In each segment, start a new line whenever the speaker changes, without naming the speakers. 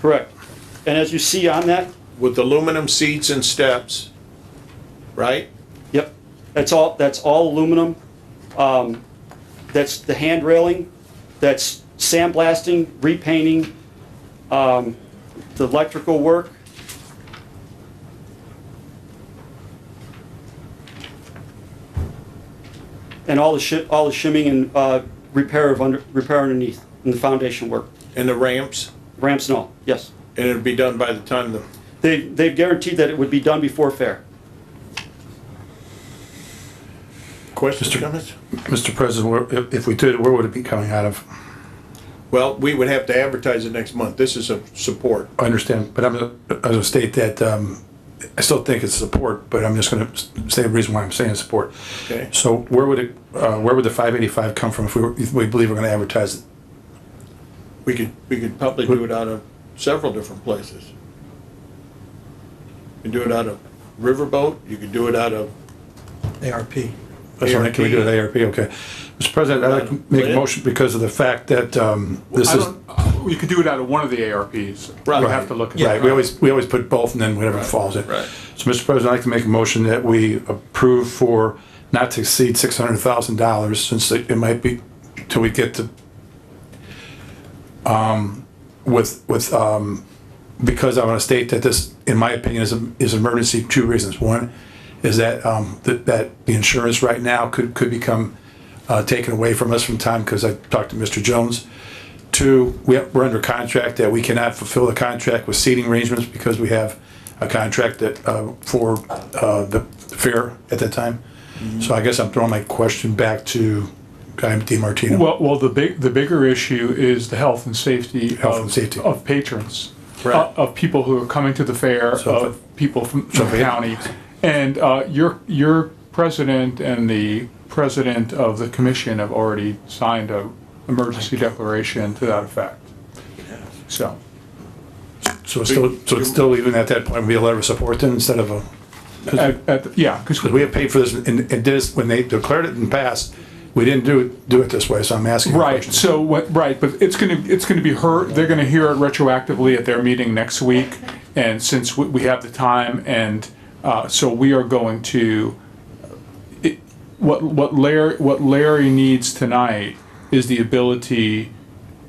Correct. And as you see on that,
with aluminum seats and steps, right?
Yep, that's all, that's all aluminum. Um, That's the hand railing, that's sandblasting, repainting, um, the electrical work. And all the shi, all the shimming and uh, repair of under, repair underneath, and the foundation work,
And the ramps,
ramps and all, yes.
and it'll be done by the time the,
They, they've guaranteed that it would be done before fair.
questions, comments?
Mr. President, where- if- if we did, where would it be coming out of?
Well, we would have to advertise it next month. This is a support.
I understand, but I'm gonna, I'm gonna state that, um, I still think it's support, but I'm just gonna s- say the reason why I'm saying support.
Okay.
So where would it, uh, where would the five eighty-five come from if we, were- if we believe we're gonna advertise it?
We could, we could probably do it out of several different places. You can do it out of Riverboat, you could do it out of,
ARP.
That's what I think we do at ARP, okay. Mr. President, I'd like to make a motion because of the fact that, um, this
I
is.
don't, uh, you could do it out of one of the ARPs.
Right.
We'll have to look. at
Right,
that.
we always, we always put both and then whatever falls in.
right.
So, Mr. President, I'd like to make a motion that we approve for not to exceed six hundred thousand dollars, since it it might be, till we get to, um, with, with, um, because I want to state that this, in my opinion, is, a- is an emergency, two reasons. One, is that, um, that, that the insurance right now could, could become, uh, taken away from us from time, because I talked to Mr. Jones. Two, we- we're under contract that we cannot fulfill the contract with seating arrangements because we have a contract that, uh, for uh, the fair at that time. So I guess I'm throwing my question back to Guy DiMartino.
Well, well, the big, the bigger issue is the health and safety.
Health and
of-
safety.
Of patrons.
Right.
uh, Of people who are coming to the fair,
So if
of people from from
if
the
it-
county. And uh, your, your president and the president of the commission have already signed a emergency declaration to that effect. So,
So it's still, so it's still even at that point, we a letter of support then instead of a,
at, at- yeah, because
because we have paid for this and and this, when they declared it in the past, we didn't do, it do it this way, so I'm asking. a
Right,
question.
so what, right, but it's gonna, it's gonna be her, they're gonna hear it retroactively at their meeting next week. And since we, we have the time and, uh, so we are going to, it- what, what Larry, what Larry needs tonight is the ability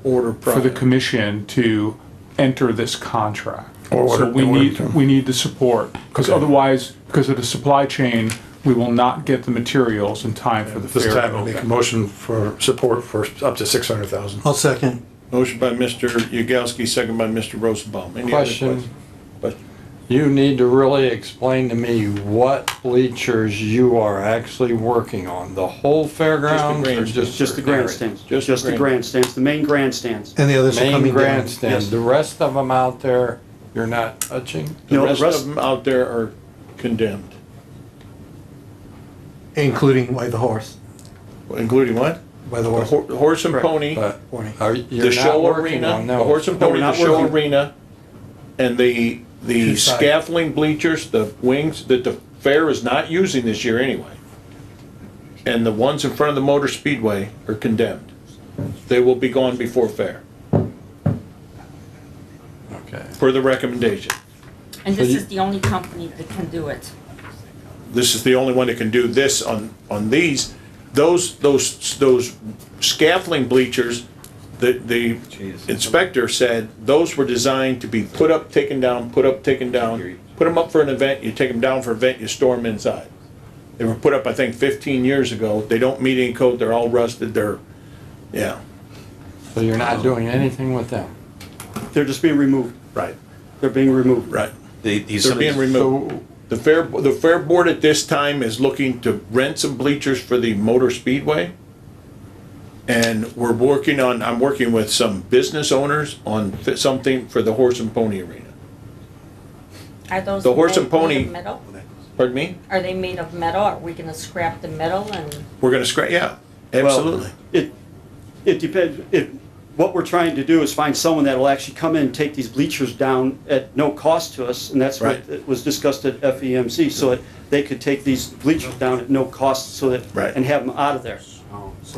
order
for the
product.
commission to enter this contract.
Or order-
So we
order
need,
term.
we need the support, because
Okay.
otherwise, because of the supply chain, we will not get the materials in time for the fair.
This
to
time, I'll make a
open.
motion for support for up to six hundred thousand.
I'll second.
Motion by Mr. Yagowski, second by Mr. Rosenbaum. Any other
Question.
questions? Question.
You need to really explain to me what bleachers you are actually working on, the whole fairgrounds or
grandstands.
just?
Just the
certain areas?
grandstands,
Just the
just the
grand-
grandstands, the main grandstands.
And the others are
Main
coming down.
grandstand,
Yes.
the rest of them out there, you're not touching?
The
No,
rest
the
of
rest,
them out there are condemned,
Including Way the Horse.
including what?
By the
The
horse.
hor- Horse and
Correct.
pony.
But
Warning.
are,
the
you're not
show
working
arena,
on
the
them?
horse and
No, we're
pony, the
not
show
working.
arena, and the, the
Two sides.
scaffolding bleachers, the wings, that the fair is not using this year anyway. And the ones in front of the motor speedway are condemned. They will be gone before fair,
Okay.
per the recommendation.
And this
you-
is the only company that can do it.
This is the only one that can do this on, on these. Those, those, those scaffolding bleachers, the, the inspector said, those were designed to be put up, taken down, put up, taken down. Put them up for an event, you take them down for an event, you store them inside. They were put up, I think, fifteen years ago. They don't meet any code, they're all rusted, they're, yeah,
So you're not doing anything with them?
they're just being removed,
right,
they're being removed.
right.
They- these-
They're
some of these-
being removed. The fair, the fair board at this time is looking to rent some bleachers for the motor speedway. And we're working on, I'm working with some business owners on fi- something for the horse and pony arena.
Are those?
The horse
made-
and pony-
made of metal?
Pardon me?
Are they made of metal? Are we gonna scrap the metal and?
We're gonna scrap, yeah,
Well,
absolutely.
It, it depends, it, what we're trying to do is find someone that'll actually come in and take these bleachers down at no cost to us, and that's what
Right.
it was discussed at FEMC, so that they could take these bleachers down at no cost, so that,
Right.
and have them out of there,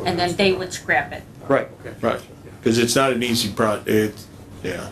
And then they would scrap it.
right.
Right, because it's not an easy pro, it, yeah.